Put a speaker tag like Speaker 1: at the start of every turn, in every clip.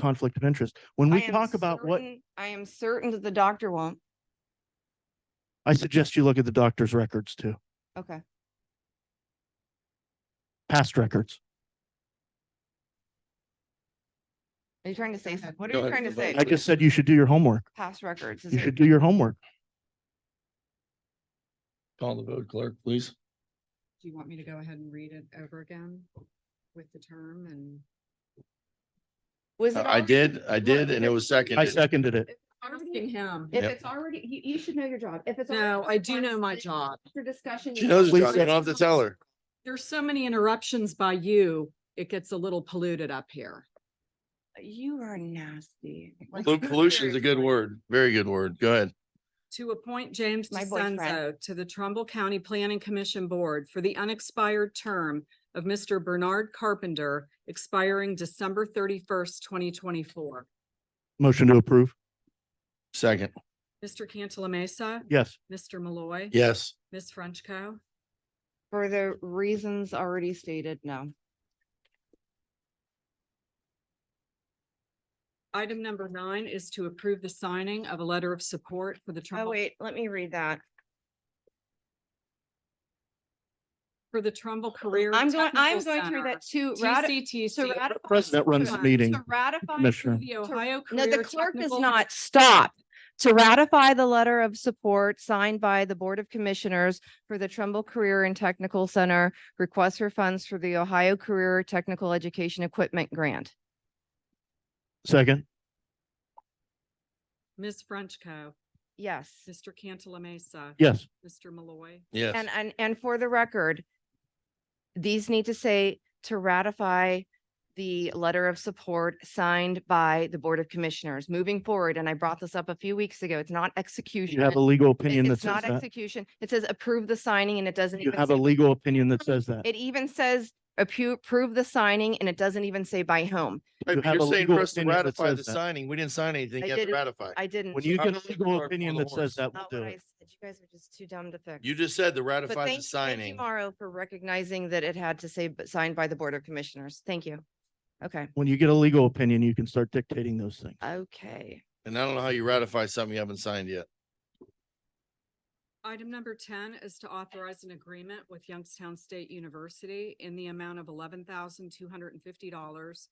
Speaker 1: conflict of interest. When we
Speaker 2: I am
Speaker 1: talk about what,
Speaker 2: certain- I am certain that the doctor won't.
Speaker 1: I suggest you look at the doctor's records too,
Speaker 2: Okay.
Speaker 1: past records.
Speaker 2: Are you trying to say, some- what are
Speaker 3: Go
Speaker 2: you
Speaker 3: ahead,
Speaker 2: trying to
Speaker 3: go ahead.
Speaker 2: say?
Speaker 1: I just said you should do your homework.
Speaker 2: Past records. is
Speaker 1: You
Speaker 2: it-
Speaker 1: should do your homework.
Speaker 3: Call the vote clerk, please.
Speaker 4: Do you want me to go ahead and read it over again with the term and?
Speaker 2: Was it
Speaker 3: I
Speaker 2: already-
Speaker 3: did, I
Speaker 2: Look,
Speaker 3: did,
Speaker 2: if
Speaker 3: and it
Speaker 2: it-
Speaker 3: was
Speaker 1: I
Speaker 3: seconded.
Speaker 1: seconded it.
Speaker 4: Asking him.
Speaker 2: If
Speaker 3: Yep.
Speaker 2: it's already, you, you should know your job. If it's.
Speaker 4: No,
Speaker 2: already
Speaker 4: I do know my job.
Speaker 2: For discussion.
Speaker 3: She knows,
Speaker 1: Please
Speaker 3: John, you don't have to tell her.
Speaker 4: There's so many interruptions by you, it gets a little polluted up here.
Speaker 2: You are nasty.
Speaker 3: Pol- Pollution's a good word, very good word. Go ahead.
Speaker 4: To appoint James
Speaker 2: My boyfriend.
Speaker 4: DeCenzo to the Trumbull County Planning Commission Board for the unexpired term of Mr. Bernard Carpenter expiring December thirty-first, twenty twenty-four.
Speaker 1: Motion to approve.
Speaker 3: Second,
Speaker 4: Mr. Cantala Mesa,
Speaker 1: Yes.
Speaker 4: Mr. Malloy.
Speaker 3: yes.
Speaker 4: Ms. Frenchco.
Speaker 2: For the reasons already stated, no.
Speaker 4: Item number nine is to approve the signing of a letter of support for the
Speaker 2: Oh,
Speaker 4: Trumbull
Speaker 2: wait, let me read that.
Speaker 4: for the Trumbull Career.
Speaker 2: I'm going, I'm going
Speaker 4: Technical
Speaker 2: through
Speaker 4: Center,
Speaker 2: that too. Rati- to
Speaker 4: TCTC.
Speaker 2: ratify-
Speaker 1: President runs the meeting,
Speaker 2: to ratify
Speaker 1: Commissioner.
Speaker 4: The Ohio
Speaker 2: No,
Speaker 4: Career.
Speaker 2: the clerk does
Speaker 4: Technical-
Speaker 2: not stop. To ratify the letter of support signed by the Board of Commissioners for the Trumbull Career and Technical Center request for funds for the Ohio Career Technical Education Equipment Grant.
Speaker 1: Second.
Speaker 4: Ms. Frenchco,
Speaker 2: Yes.
Speaker 4: Mr. Cantala Mesa,
Speaker 1: Yes.
Speaker 4: Mr. Malloy.
Speaker 3: Yes,
Speaker 2: And, and, and for the record, these need to say to ratify the letter of support signed by the Board of Commissioners moving forward. And I brought this up a few weeks ago. It's not execution.
Speaker 1: You have a legal
Speaker 2: It-
Speaker 1: opinion that
Speaker 2: It's
Speaker 1: says
Speaker 2: not
Speaker 1: that.
Speaker 2: execution. It says approve the signing and it doesn't
Speaker 1: You
Speaker 2: even.
Speaker 1: have
Speaker 2: say-
Speaker 1: a legal opinion that says that.
Speaker 2: It even says appu- approve the signing and it doesn't even say by whom.
Speaker 3: Right,
Speaker 1: you
Speaker 3: but
Speaker 1: have
Speaker 3: you're
Speaker 1: a
Speaker 3: saying
Speaker 1: legal
Speaker 3: for us to
Speaker 1: opinion that
Speaker 3: ratify
Speaker 1: says
Speaker 3: the
Speaker 1: that.
Speaker 3: signing. We didn't sign anything
Speaker 2: I
Speaker 3: yet to
Speaker 2: didn't-
Speaker 3: ratify.
Speaker 2: I didn't.
Speaker 1: When you get
Speaker 3: I'm
Speaker 1: a
Speaker 3: just gonna
Speaker 1: legal
Speaker 3: start
Speaker 1: opinion
Speaker 3: pulling
Speaker 1: that
Speaker 3: the
Speaker 1: says that,
Speaker 2: Not
Speaker 1: we'll
Speaker 2: what
Speaker 1: do
Speaker 2: Oh, I
Speaker 1: it.
Speaker 2: said. You guys are just too dumb to fix.
Speaker 3: You just said to
Speaker 2: But
Speaker 3: ratify
Speaker 2: thank
Speaker 3: the
Speaker 2: thank you,
Speaker 3: signing.
Speaker 2: Mauro, for recognizing that it had to say b- signed by the Board of Commissioners. Thank you. Okay,
Speaker 1: When you get a legal opinion, you can start dictating those things.
Speaker 2: Uh, okay.
Speaker 3: And I don't know how you ratify something you haven't signed yet.
Speaker 4: Item number ten is to authorize an agreement with Youngstown State University in the amount of eleven thousand two hundred and fifty dollars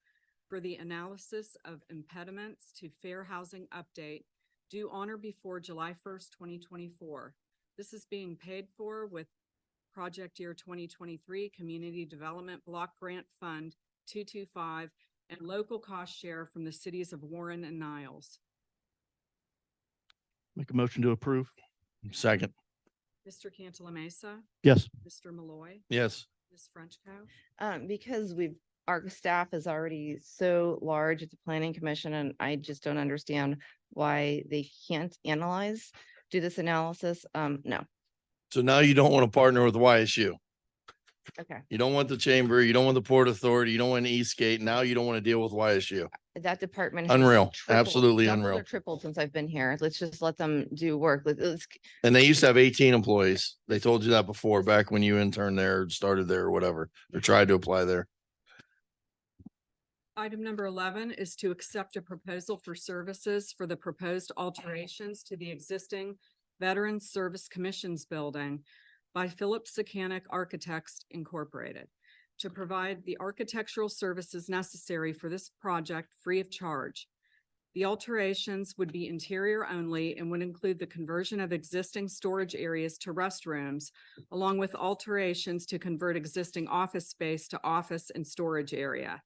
Speaker 4: for the analysis of impediments to fair housing update due on or before July first, twenty twenty-four. This is being paid for with Project Year twenty twenty-three Community Development Block Grant Fund two-two-five and local cost share from the cities of Warren and Niles.
Speaker 1: Make a motion to approve.
Speaker 3: Second,
Speaker 4: Mr. Cantala Mesa,
Speaker 1: Yes.
Speaker 4: Mr. Malloy,
Speaker 3: yes.
Speaker 4: Ms. Frenchco.
Speaker 2: Um, because we've, our staff is already so large at the planning commission and I just don't understand why they can't analyze, do this analysis. Um, no,
Speaker 3: So now you don't want to partner with YSU.
Speaker 2: okay.
Speaker 3: You don't want the chamber, you don't want the Port Authority, you don't want Eastgate. Now you don't want to deal with YSU.
Speaker 2: That department. has
Speaker 3: Unreal,
Speaker 2: tripled,
Speaker 3: absolutely
Speaker 2: doubled or
Speaker 3: unreal.
Speaker 2: Tripled since I've been here. Let's just let them do work. Let- Let's,
Speaker 3: And they used to have eighteen employees. They told you that before, back when you interned there, or started there or whatever, or tried to apply there.
Speaker 4: Item number eleven is to accept a proposal for services for the proposed alterations to the existing Veterans Service Commissions Building by Phillips Secanic Architects Incorporated to provide the architectural services necessary for this project free of charge. The alterations would be interior only and would include the conversion of existing storage areas to restrooms, along with alterations to convert existing office space to office and storage area.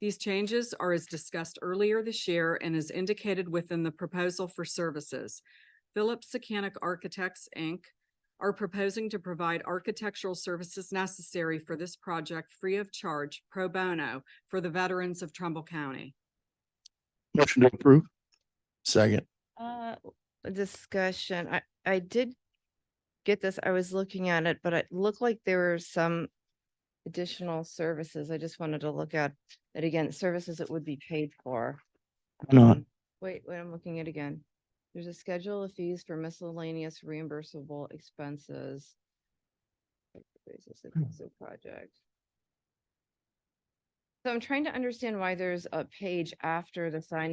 Speaker 4: These changes are as discussed earlier this year and as indicated within the proposal for services. Phillips Secanic Architects, Inc. are proposing to provide architectural services necessary for this project free of charge pro bono for the veterans of Trumbull County.
Speaker 1: Motion to approve.
Speaker 3: Second,
Speaker 2: uh, discussion. I, I did get this. I was looking at it, but it looked like there were some additional services. I just wanted to look at it again, services that would be paid for.
Speaker 1: Hang on.
Speaker 2: Um, Wait, wait, I'm looking at it again. There's a schedule of fees for miscellaneous reimbursable expenses. Basis of cost of project. So I'm trying to understand why there's a page after the signing.